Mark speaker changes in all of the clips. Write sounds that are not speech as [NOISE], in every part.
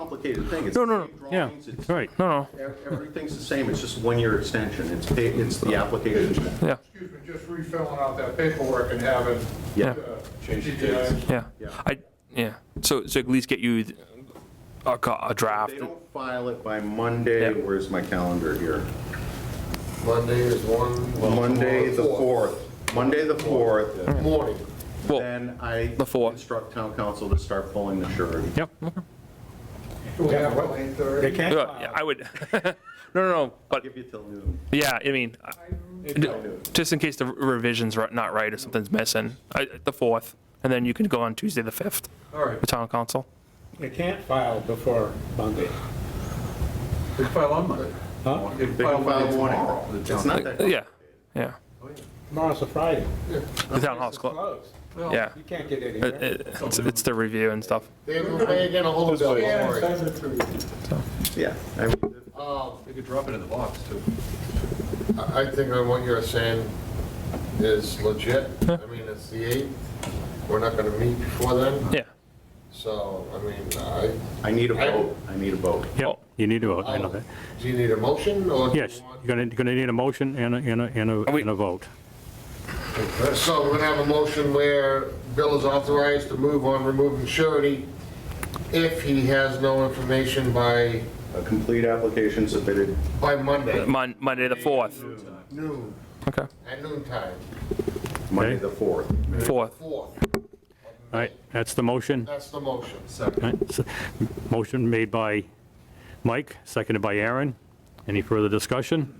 Speaker 1: complicated thing. It's
Speaker 2: No, no,
Speaker 1: the same
Speaker 2: no, yeah,
Speaker 1: drawings, it's-
Speaker 2: right, no,
Speaker 1: e- Everything's the same, it's just one-year extension, it's, pa- it's the
Speaker 2: [LAUGHS]
Speaker 1: application.
Speaker 2: no, yeah,
Speaker 3: Excuse me, just refilling out that paperwork and having. uh,
Speaker 1: Yeah.
Speaker 3: Change the dates.
Speaker 2: yeah.
Speaker 1: Yeah.
Speaker 2: I, yeah, so, so at least get you th- a, co- a draft.
Speaker 1: They don't file it by Monday,
Speaker 2: Yeah.
Speaker 1: where's my calendar here?
Speaker 4: Monday is one. well,
Speaker 1: Monday, the
Speaker 4: tomorrow,
Speaker 1: 4th, Monday, the 4th,
Speaker 4: Morning.
Speaker 2: Well,
Speaker 1: then I
Speaker 2: The 4th.
Speaker 1: instruct town council to start pulling the surety.
Speaker 2: yep,
Speaker 3: Do we have what, eight thirty?
Speaker 2: Yeah, I would, [LAUGHS] no, no, no, but,
Speaker 1: Give you till noon.
Speaker 2: yeah, I mean, I- just in case the revision's ri- not right or something's missing, I- the 4th, and then you can go on Tuesday, the 5th,
Speaker 3: All right,
Speaker 2: the town council.
Speaker 5: They can't file before Monday.
Speaker 3: we file on Monday.
Speaker 5: Huh?
Speaker 3: We
Speaker 1: They
Speaker 3: file
Speaker 1: can file
Speaker 3: Monday tomorrow.
Speaker 1: tomorrow. It's not that.
Speaker 2: Uh, Yeah, yeah,
Speaker 5: Tomorrow's a Friday.
Speaker 2: the town hall's closed,
Speaker 5: Closed.
Speaker 2: yeah.
Speaker 5: You can't get
Speaker 2: It-
Speaker 5: anywhere.
Speaker 2: it- It's it's the review and stuff.
Speaker 4: They will pay again a whole bill, don't worry.
Speaker 1: Yeah, I mean,
Speaker 4: Um,
Speaker 3: They could drop it in the box, too.
Speaker 4: I I think on what you're saying is legit. I mean, it's the 8th. We're not going to meet before then,
Speaker 2: Yeah.
Speaker 4: so, I mean, I,
Speaker 1: I need a vote, I need a vote.
Speaker 6: Yeah, you need to vote, I know
Speaker 4: do
Speaker 6: that.
Speaker 4: you need a motion or? do you
Speaker 6: Yes,
Speaker 4: want-
Speaker 6: you're gonna, you're gonna need a motion and a, and a, and a-
Speaker 2: we-
Speaker 6: and a vote.
Speaker 4: So we're going to have a motion where Bill is authorized to move on removing surety if he has no information by,
Speaker 1: A complete application submitted
Speaker 4: by Monday
Speaker 2: Mon- Monday, the 4th,
Speaker 4: noon,
Speaker 2: okay,
Speaker 4: at noon time,
Speaker 1: Monday,
Speaker 6: Okay.
Speaker 1: the 4th.
Speaker 2: 4th,
Speaker 4: 4th.
Speaker 6: All right, that's the motion.
Speaker 4: That's the motion.
Speaker 6: All right, so, Motion made by Mike, seconded by Aaron. Any further discussion?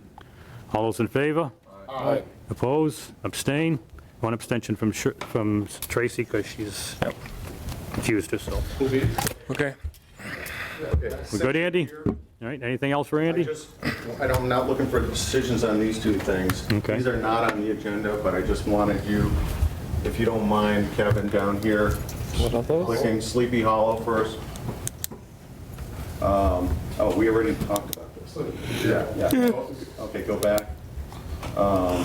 Speaker 6: All those in favor?
Speaker 4: All right.
Speaker 6: Oppose? Abstain? One abstention from, Sh- from Tracy, because she's accused herself.
Speaker 2: okay.
Speaker 6: We good, Andy? All right, anything else for
Speaker 1: I
Speaker 6: Andy?
Speaker 1: just, I'm not looking for decisions on these two things.
Speaker 6: Okay.
Speaker 1: These are not on the agenda, but I just wanted you, if you don't mind, Kevin, down here, clicking Sleepy Hollow first. Um, Oh, we already talked about this. Yeah. yeah. Okay, go back. Um,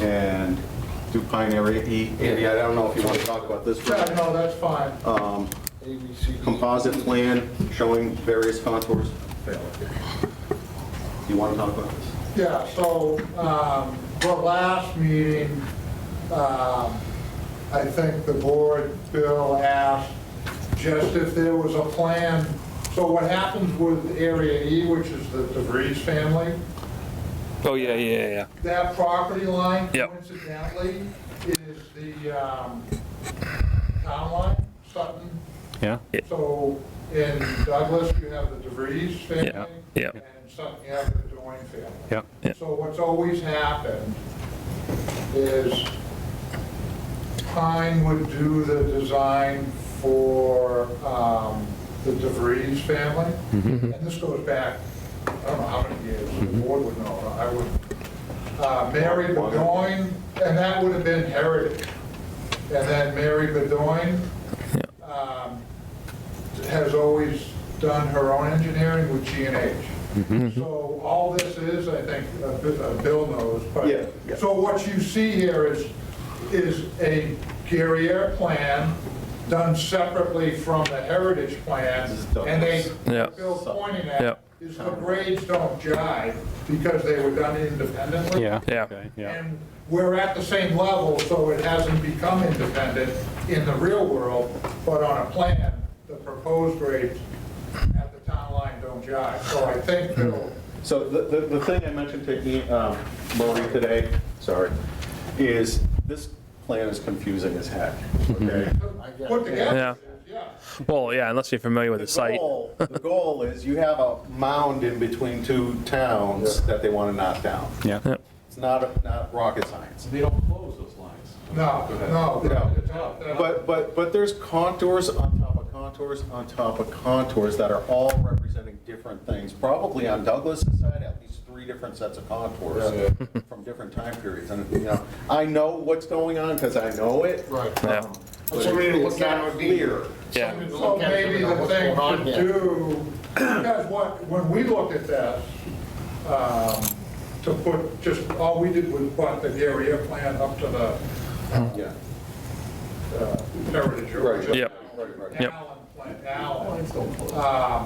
Speaker 1: And do Pine Area E. Andy, I don't know if you want to talk about this.
Speaker 3: Yeah, no, that's fine.
Speaker 4: A, B, C, D.
Speaker 1: Composite plan showing various contours. Do you want to talk about this?
Speaker 3: Yeah, so, um, the last meeting, um, I think the board, Bill asked just if there was a plan. So what happens with Area E, which is the DeVries family,
Speaker 2: Oh, yeah, yeah, yeah.
Speaker 3: that property line
Speaker 2: Yep.
Speaker 3: coincidentally is the, um, town line, Sutton.
Speaker 6: Yeah?
Speaker 3: So in Douglas, you have the DeVries
Speaker 2: Yeah,
Speaker 3: family.
Speaker 2: yeah.
Speaker 3: And in Sutton, you have the Doing family.
Speaker 6: Yeah.
Speaker 2: Yeah.
Speaker 3: So what's always happened is Pine would do the design for um, the DeVries family.
Speaker 2: Mm-hmm.
Speaker 3: And this goes back, I don't know how many years, the board would know, I wouldn't. Uh, Mary Bedoin, and that would have been Heritage. And then Mary Bedoin um, has always done her own engineering with G and H. So all this is, I think, uh, Bi- uh, Bill knows,
Speaker 1: Yeah, yeah.
Speaker 3: but, so what you see here is, is a Guerriere plan done separately from the Heritage plan,
Speaker 1: This is Douglas.
Speaker 3: and they,
Speaker 2: Yeah.
Speaker 3: Bill's pointing
Speaker 2: Yeah.
Speaker 3: at, is the grades don't jive, because they were done independently.
Speaker 6: Yeah.
Speaker 2: Yeah.
Speaker 6: Okay, Yeah.
Speaker 3: And we're at the same level, so it hasn't become independent in the real world, but on a plan, the proposed grades at the town line don't jive. So I think
Speaker 6: Hmm.
Speaker 3: Bill
Speaker 1: So the, the, the thing I mentioned to Ian, um, Maureen today, sorry, is this plan is confusing as heck, okay?
Speaker 3: put
Speaker 2: Yeah.
Speaker 3: together, yeah.
Speaker 2: Well, yeah, unless you're familiar with the site.
Speaker 1: goal- The goal is you have a mound in between two towns that they want to knock down.
Speaker 6: Yeah.
Speaker 1: It's not, not rocket science.
Speaker 7: They don't close those lines.
Speaker 3: No, no,
Speaker 1: No.
Speaker 3: no, no.
Speaker 1: But, but, but there's contours on top of contours on top of contours that are all representing different things. Probably on Douglas' side, at least three different sets of contours [LAUGHS] from different time periods. And, you know, I know what's going on because I know it.
Speaker 4: Right.
Speaker 2: Yeah.
Speaker 1: but
Speaker 4: So we need to look
Speaker 1: it's not
Speaker 4: at it
Speaker 1: clear.
Speaker 2: Yeah.
Speaker 3: So maybe the thing to do, because what, when we looked at that, um, to put, just, all we did was put the Guerriere plan up to the
Speaker 1: Yeah.
Speaker 3: uh, Heritage. or
Speaker 1: Right.
Speaker 3: just
Speaker 2: Yep.
Speaker 1: Right, right.
Speaker 2: Yep.
Speaker 3: Allen plan, Allen. Um,